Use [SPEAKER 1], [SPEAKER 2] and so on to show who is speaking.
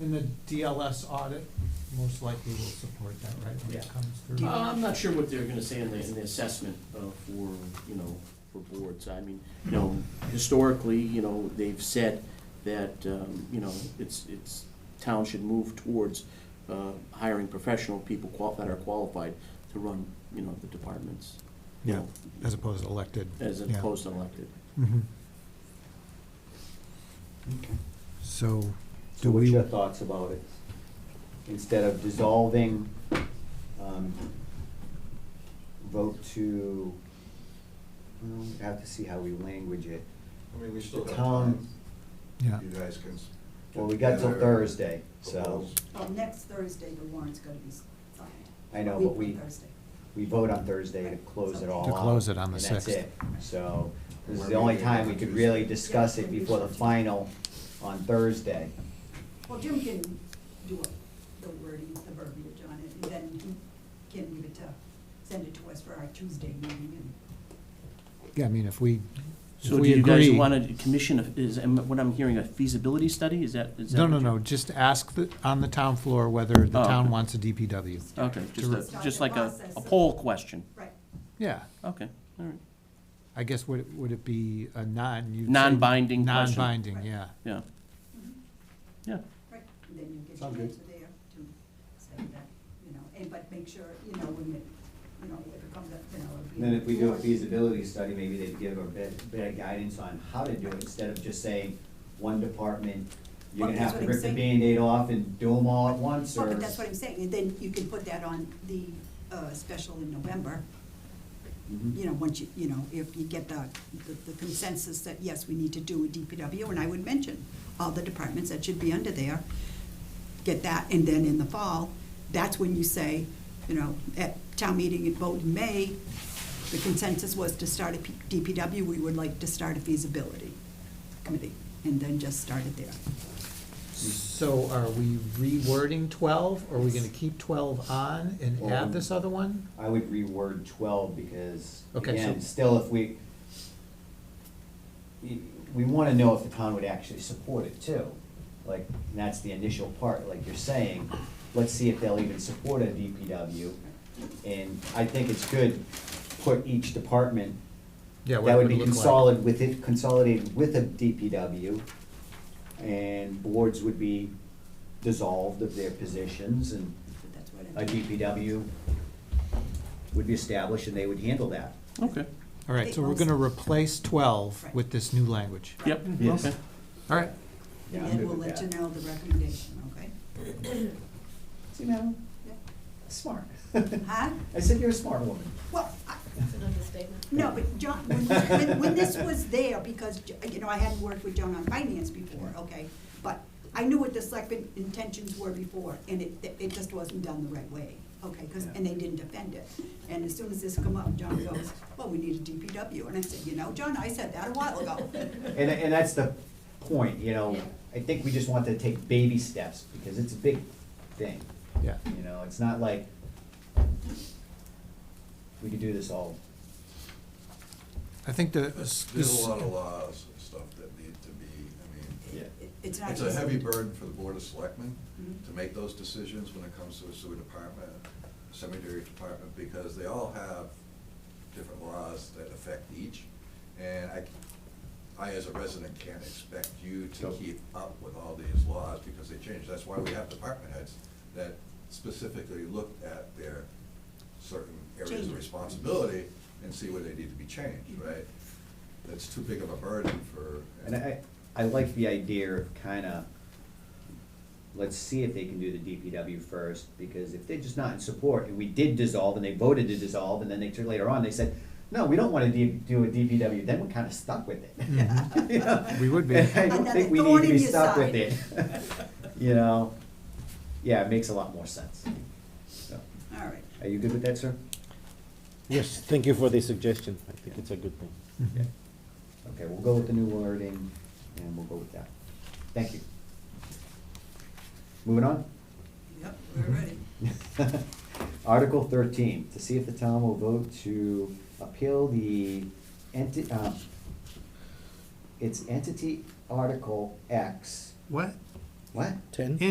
[SPEAKER 1] And the DLS audit most likely will support that, right, when it
[SPEAKER 2] Yeah.
[SPEAKER 1] comes through?
[SPEAKER 2] Uh, I'm not sure what they're gonna say in the, in the assessment uh, for, you know, for boards. I mean, you know, historically, you know, they've said that, um, you know, it's, it's, town should move towards uh, hiring professional people qual- that are qualified to run, you know, the departments. you
[SPEAKER 1] Yeah,
[SPEAKER 2] know,
[SPEAKER 1] as opposed to elected.
[SPEAKER 2] As
[SPEAKER 1] yeah.
[SPEAKER 2] opposed to elected.
[SPEAKER 1] Mhm. So,
[SPEAKER 3] So
[SPEAKER 1] do
[SPEAKER 3] what's
[SPEAKER 1] we,
[SPEAKER 3] your thoughts about it? Instead of dissolving, um, vote to, well, we have to see how we language it.
[SPEAKER 4] I mean, we still
[SPEAKER 3] The
[SPEAKER 4] got
[SPEAKER 3] town-
[SPEAKER 4] time.
[SPEAKER 1] yeah,
[SPEAKER 4] You guys can. s-
[SPEAKER 3] Well, we got till
[SPEAKER 4] gather
[SPEAKER 3] Thursday, so,
[SPEAKER 4] proposals.
[SPEAKER 5] Well, Oh, next Thursday, the warrant's gonna be signed.
[SPEAKER 3] I know,
[SPEAKER 5] Week
[SPEAKER 3] but we,
[SPEAKER 5] from Thursday.
[SPEAKER 3] we vote on Thursday to close it all
[SPEAKER 1] To
[SPEAKER 3] out,
[SPEAKER 1] close it on the
[SPEAKER 3] and that's
[SPEAKER 1] 6th.
[SPEAKER 3] it. So, this is
[SPEAKER 4] We're
[SPEAKER 3] the only
[SPEAKER 4] meeting
[SPEAKER 3] time
[SPEAKER 4] on
[SPEAKER 3] we could
[SPEAKER 4] Tuesday.
[SPEAKER 3] really discuss it
[SPEAKER 5] Yeah.
[SPEAKER 3] before the final on Thursday.
[SPEAKER 5] Well, Jim can do it, the wording, the verbiage on it, and then he can give it to, send it to us for our Tuesday meeting.
[SPEAKER 1] yeah, I mean, if we, if
[SPEAKER 2] So do
[SPEAKER 1] we
[SPEAKER 2] you guys
[SPEAKER 1] agree.
[SPEAKER 2] wanna commission, a- is, am- what I'm hearing, a feasibility study? Is that, is that?
[SPEAKER 1] No,
[SPEAKER 2] what
[SPEAKER 1] no,
[SPEAKER 2] you-
[SPEAKER 1] no, just ask the, on the town floor whether the
[SPEAKER 2] Oh,
[SPEAKER 1] town
[SPEAKER 2] okay.
[SPEAKER 1] wants a DPW.
[SPEAKER 5] and
[SPEAKER 2] Okay, just
[SPEAKER 5] start-
[SPEAKER 2] a,
[SPEAKER 5] start
[SPEAKER 2] just
[SPEAKER 5] the
[SPEAKER 2] like a,
[SPEAKER 5] process
[SPEAKER 2] a
[SPEAKER 5] of-
[SPEAKER 2] poll question.
[SPEAKER 5] Right,
[SPEAKER 1] Yeah,
[SPEAKER 2] Okay, all right,
[SPEAKER 1] I guess would, it- would it be a non? you'd say-
[SPEAKER 2] Non-binding question.
[SPEAKER 1] Non-binding, yeah.
[SPEAKER 2] yeah. Yeah.
[SPEAKER 5] mm-hmm, right, and then you get your
[SPEAKER 4] Sound good.
[SPEAKER 5] answer there to say that, you know, and but make sure, you know, when it, you know, if it comes up, you know, it'll be.
[SPEAKER 3] And Then if we do a
[SPEAKER 5] before-
[SPEAKER 3] feasibility study, maybe they'd give a bit, bit of guidance on how to do it, instead of just saying, one department, you're
[SPEAKER 5] Well,
[SPEAKER 3] gonna
[SPEAKER 5] that's
[SPEAKER 3] have to
[SPEAKER 5] what
[SPEAKER 3] rip
[SPEAKER 5] I'm
[SPEAKER 3] the
[SPEAKER 5] saying.
[SPEAKER 3] Band-Aid off and do them all at once,
[SPEAKER 5] Well,
[SPEAKER 3] or.
[SPEAKER 5] but that's what I'm saying, and then you can put that on the, uh, special in November,
[SPEAKER 3] Mhm.
[SPEAKER 5] you know, once you, you know, if you get the, the- the consensus that, yes, we need to do a DPW, and I would mention all the departments that should be under there, get that, and then in the fall, that's when you say, you know, at town meeting and vote in May, the consensus was to start a P- DPW, we would like to start a feasibility committee, and then just start it there.
[SPEAKER 1] So are we rewording twelve, or are we gonna keep twelve on and add
[SPEAKER 3] Um,
[SPEAKER 1] this other one?
[SPEAKER 3] I would reword twelve, because,
[SPEAKER 1] Okay,
[SPEAKER 3] again,
[SPEAKER 1] so-
[SPEAKER 3] still if we, y- we wanna know if the town would actually support it too, like, and that's the initial part, like you're saying, let's see if they'll even support a DPW, and I think it's good, put each department
[SPEAKER 1] Yeah, what
[SPEAKER 3] That
[SPEAKER 1] it
[SPEAKER 3] would be
[SPEAKER 1] look like.
[SPEAKER 3] consolidated with it, consolidated with a DPW, and boards would be dissolved of their positions, and
[SPEAKER 5] But that's what
[SPEAKER 3] a
[SPEAKER 5] I'm.
[SPEAKER 3] DPW would be established, and they would handle that.
[SPEAKER 2] Okay,
[SPEAKER 1] All right, so we're gonna replace twelve
[SPEAKER 5] Right.
[SPEAKER 1] with this new language.
[SPEAKER 2] yep,
[SPEAKER 3] Yes.
[SPEAKER 2] okay.
[SPEAKER 1] All right,
[SPEAKER 3] Yeah,
[SPEAKER 5] And
[SPEAKER 3] I'm
[SPEAKER 5] then
[SPEAKER 3] good
[SPEAKER 5] we'll
[SPEAKER 3] with
[SPEAKER 5] let you
[SPEAKER 3] that.
[SPEAKER 5] know the recommendation, okay?
[SPEAKER 3] See, madam,
[SPEAKER 5] Yeah.
[SPEAKER 3] smart.
[SPEAKER 5] Huh?
[SPEAKER 3] I said you're a smart woman.
[SPEAKER 5] Well, I-
[SPEAKER 6] That's an understatement.
[SPEAKER 5] no, but John, when, when, when this was there, because, you know, I hadn't worked with John on finance before, okay? But I knew what the selectmen intentions were before, and it, it just wasn't done the right way, okay? 'Cause- and they didn't defend it. And as soon as this come up, John goes, well, we need a DPW, and I said, you know, John, I said that a while ago.
[SPEAKER 3] And, and that's the point, you know,
[SPEAKER 6] Yeah.
[SPEAKER 3] I think we just want to take baby steps, because it's a big thing,
[SPEAKER 1] yeah,
[SPEAKER 3] you know, it's not like we could do this all
[SPEAKER 1] I think the.
[SPEAKER 4] There's a lot of laws and stuff that need to be, I mean,
[SPEAKER 3] Yeah.
[SPEAKER 5] It- It's not
[SPEAKER 4] it's
[SPEAKER 5] easy.
[SPEAKER 4] a heavy burden for the Board of Selectmen
[SPEAKER 5] Mhm.
[SPEAKER 4] to make those decisions when it comes to a sewer department, cemetery department, because they all have different laws that affect each. And I, I as a resident can't expect you to
[SPEAKER 3] Yep.
[SPEAKER 4] keep up with all these laws because they change. That's why we have department heads that specifically look at their certain areas
[SPEAKER 5] Changes. Mm-hmm.
[SPEAKER 4] of responsibility and see where they need to be changed, right? That's too big of a burden for.
[SPEAKER 3] And I, I like the idea of kinda, let's see if they can do the DPW first, because if they're just not in support, and we did dissolve, and they voted to dissolve, and then they, took- later on, they said, no, we don't wanna D- do a DPW, then we're kinda stuck with it. You know?
[SPEAKER 1] Mm. We would be.
[SPEAKER 3] And I don't
[SPEAKER 5] Another
[SPEAKER 3] think we
[SPEAKER 5] thorn
[SPEAKER 3] need to
[SPEAKER 5] in
[SPEAKER 3] be
[SPEAKER 5] your
[SPEAKER 3] stuck with
[SPEAKER 5] side.
[SPEAKER 3] it. You know, yeah, it makes a lot more sense. So,
[SPEAKER 5] All right.
[SPEAKER 3] Are you good with that, sir?
[SPEAKER 7] Yes, thank you for the suggestion. I think it's a good thing.
[SPEAKER 1] Mhm.
[SPEAKER 3] Yeah. Okay, we'll go with the new wording, and we'll go with that. Thank you. Moving on?
[SPEAKER 5] Yep, we're ready.
[SPEAKER 3] Article thirteen, to see if the town will vote to appeal the enti- um, its entity Article X.
[SPEAKER 1] What?
[SPEAKER 3] What?
[SPEAKER 7] Ten?